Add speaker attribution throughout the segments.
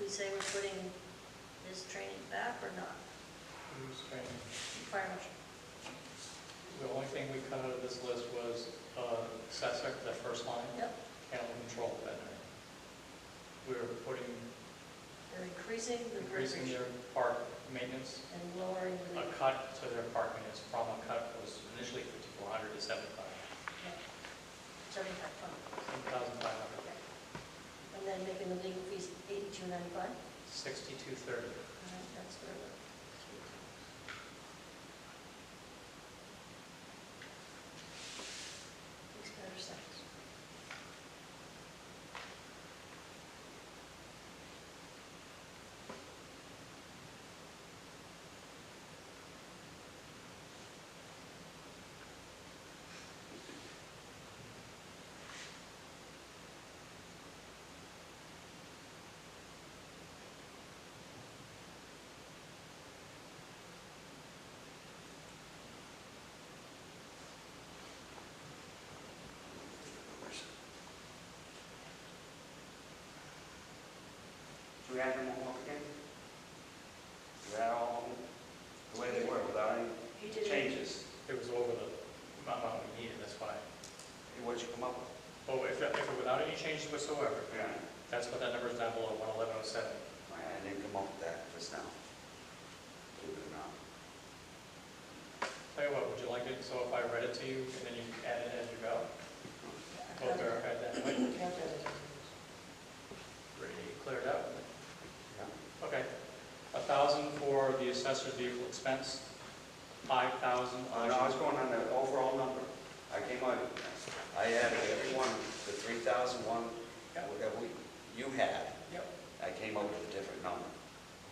Speaker 1: we say we're putting his training back or not?
Speaker 2: Who's training?
Speaker 1: Fire marshal.
Speaker 2: The only thing we cut out of this list was uh, assessor, the first line,
Speaker 1: Yep,
Speaker 2: animal control veterinary. We were putting,
Speaker 1: they're increasing the
Speaker 2: increasing
Speaker 1: verbiage
Speaker 2: their park maintenance,
Speaker 1: and lowering the,
Speaker 2: a cut to their park maintenance from a cut that was initially fifty-four hundred to seventy-five,
Speaker 1: seventy-five fund.
Speaker 2: seven thousand five hundred,
Speaker 1: And then making the legal fees eighty-two ninety-five?
Speaker 2: sixty-two thirty.
Speaker 1: That's where the. Makes better sense.
Speaker 3: Do we have them all up again? Is that all, the way they were, without any
Speaker 1: You did.
Speaker 3: changes,
Speaker 2: It was over the amount we needed, that's why.
Speaker 3: what'd you come up with?
Speaker 2: Oh, if, if without any changes whatsoever,
Speaker 3: Yeah.
Speaker 2: that's what that number is down below, one eleven oh seven.
Speaker 3: I didn't come up with that just now. Believe it or not.
Speaker 2: Tell you what, would you like it, so if I read it to you, and then you add it as you go? We'll verify that, way. pretty cleared up.
Speaker 3: Yeah.
Speaker 2: Okay, a thousand for the assessor's vehicle expense, five thousand
Speaker 3: Uh,
Speaker 2: on,
Speaker 3: No, I was going on the overall number. I came out, I added every one, the three thousand one,
Speaker 2: Yeah.
Speaker 3: whatever you had,
Speaker 2: yep,
Speaker 3: I came up with a different number.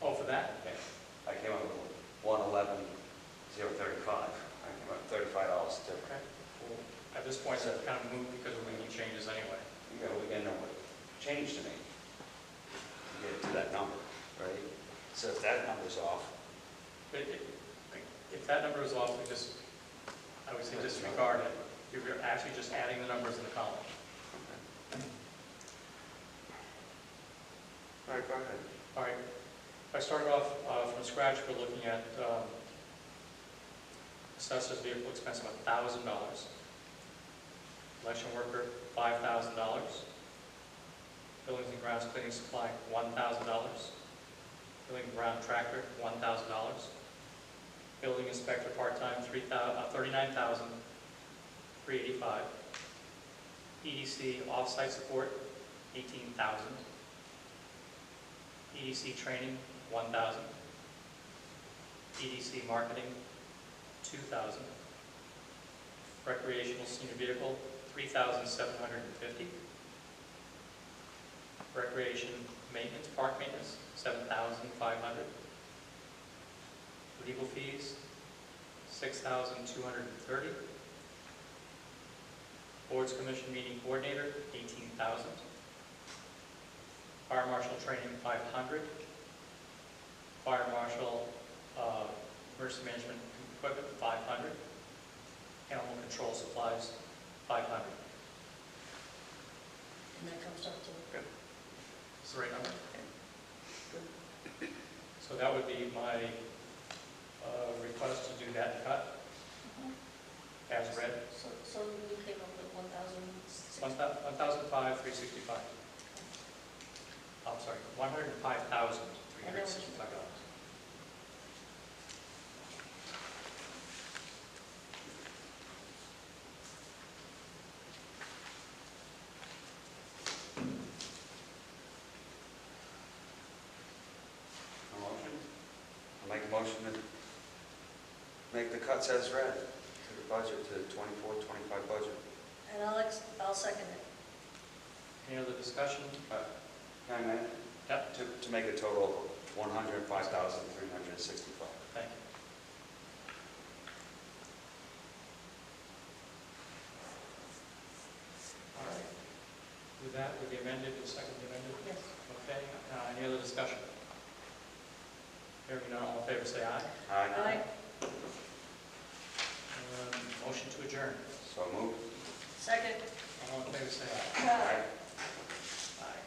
Speaker 2: oh, for that, okay.
Speaker 3: I came up with one eleven, zero thirty-five. I came up thirty-five dollars
Speaker 2: Okay.
Speaker 3: different.
Speaker 2: Cool. At this point, it's kind of moved because we're making changes anyway.
Speaker 3: You know, we gotta know what changed to me. to Get it to that number, right? So if that number's off,
Speaker 2: But if- if that number is off, we just, I would say disregard it, you're actually just adding the numbers in the column.
Speaker 3: all right, go ahead.
Speaker 2: All right, if I started off uh, from scratch, we're looking at um, assessor's vehicle expense of $1,000. Election worker, $5,000. Buildings and grounds cleaning supply, $1,000. Building and ground tractor, $1,000. Building inspector part-time, three thou- uh, $39,385. EDC E off-site support, $18,000. EDC training, one thousand. EDC marketing, two thousand. Recreational senior vehicle, three thousand seven hundred and fifty. Recreation maintenance, park maintenance, seven thousand five hundred. Legal fees, six thousand two hundred and thirty. Boards commission meeting coordinator, eighteen thousand. Fire marshal training, five hundred. Fire marshal, uh, emergency management equipment, five hundred. Animal control supplies, five hundred.
Speaker 1: And that comes up to,
Speaker 2: Is the right number? So that would be my, uh, request to do that cut as read.
Speaker 1: so, so you came up with one thousand six.
Speaker 2: One thou, one thousand five, three sixty-five. I'm sorry, one hundred and five thousand, three hundred and sixty-five dollars.
Speaker 3: A motion? I'll make a motion to make the cuts as read to the budget, to the 24, 25 budget.
Speaker 1: And I'll, ex- I'll second it.
Speaker 2: Any other discussion?
Speaker 3: Can I amend?
Speaker 2: Yep,
Speaker 3: To, to make a total of 105,365.
Speaker 2: thank you. All right. With that, with the amended, the second amended,
Speaker 1: Yes.
Speaker 2: okay, uh, any other discussion? Hearing none, all in favor, say aye.
Speaker 3: Aye.
Speaker 1: Aye.
Speaker 2: Um, Motion to adjourn,
Speaker 3: So moved.
Speaker 1: Second.
Speaker 2: all in favor, say aye.
Speaker 3: Aye.